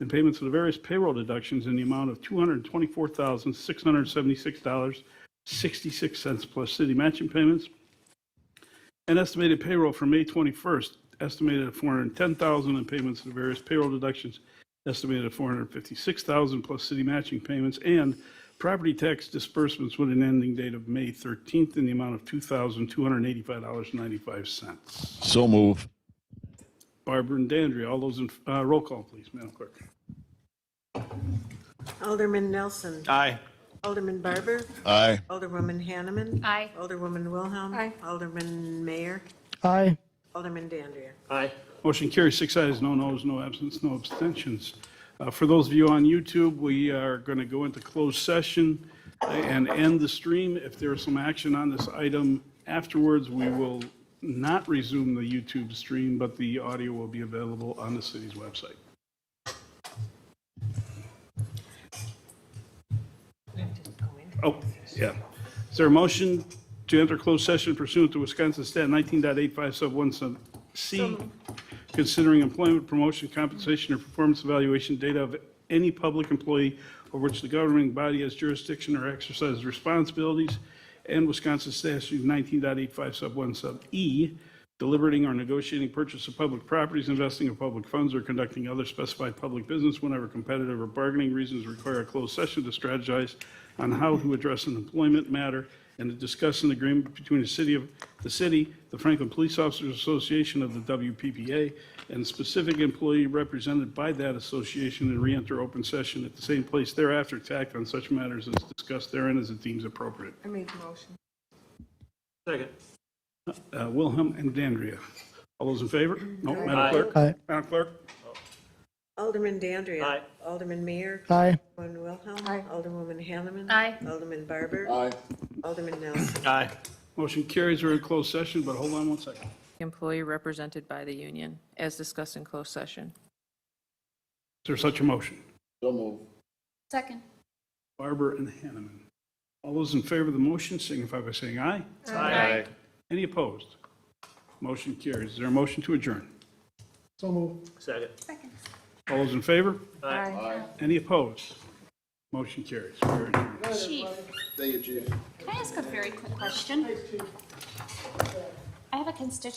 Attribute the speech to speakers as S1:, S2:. S1: and payments for the various payroll deductions in the amount of $224,676.66 plus city matching payments, and estimated payroll for May 21st, estimated at 410,000 in payments to the various payroll deductions, estimated at 456,000 plus city matching payments, and property tax disbursements with an ending date of May 13th in the amount of $2,285.95.
S2: So move.
S1: Barbara and Dandria, all those in, uh, roll call, please, Madam Clerk.
S3: Alderman Nelson.
S4: Aye.
S3: Alderman Barber.
S2: Aye.
S3: Alderwoman Hanneman.
S5: Aye.
S3: Alderwoman Wilhelm.
S5: Aye.
S3: Alderman Mayor.
S6: aye,
S3: Alderman Dandria.
S4: Aye.
S1: Motion carries six ayes, no noes, no absence, no abstentions. Uh, For those of you on YouTube, we are going to go into closed session and end the stream. If there is some action on this item afterwards, we will not resume the YouTube stream, but the audio will be available on the city's website. Oh, yeah. Is there a motion to enter closed session pursuant to Wisconsin Stat 19.85 sub 1 sub C, considering employment, promotion, compensation, or performance evaluation data of any public employee over which the governing body has jurisdiction or exercises responsibilities, and Wisconsin Statute 19.85 sub 1 sub E, deliberating or negotiating purchase of public properties, investing of public funds, or conducting other specified public business whenever competitive or bargaining reasons require a closed session to strategize on how to address an employment matter and to discuss an agreement between the city of, the city, the Franklin Police Officers Association of the WPPA, and specific employee represented by that association and re-enter open session at the same place thereafter to act on such matters as discussed therein as it deems appropriate.
S5: I made the motion.
S4: Second.
S1: Uh, Wilhelm and Dandria. All those in favor? No, Madam
S4: Aye.
S1: Clerk?
S6: aye,
S1: Madam Clerk?
S3: Alderman Dandria.
S4: Aye.
S3: Alderman Mayor.
S6: aye.
S3: Alderwoman Wilhelm.
S5: Aye.
S3: Alderwoman Hanneman.
S5: Aye.
S3: Alderman Barber.
S2: Aye.
S3: Alderman Nelson.
S4: Aye.
S1: Motion carries. We're in closed session, but hold on one second.
S7: employee represented by the union, as discussed in closed session.
S1: Is there such a motion?
S2: So move.
S5: Second.
S1: Barber and Hanneman. All those in favor of the motion signify by saying aye.
S5: Aye.
S1: Any opposed? Motion carries. Is there a motion to adjourn?
S6: So moved.
S4: Second.
S1: All those in favor?
S4: Aye.
S1: Any opposed? Motion carries. We're adjourned.
S5: Chief,
S2: Thank you, Chief.
S5: can I ask a very quick question? I have a constituent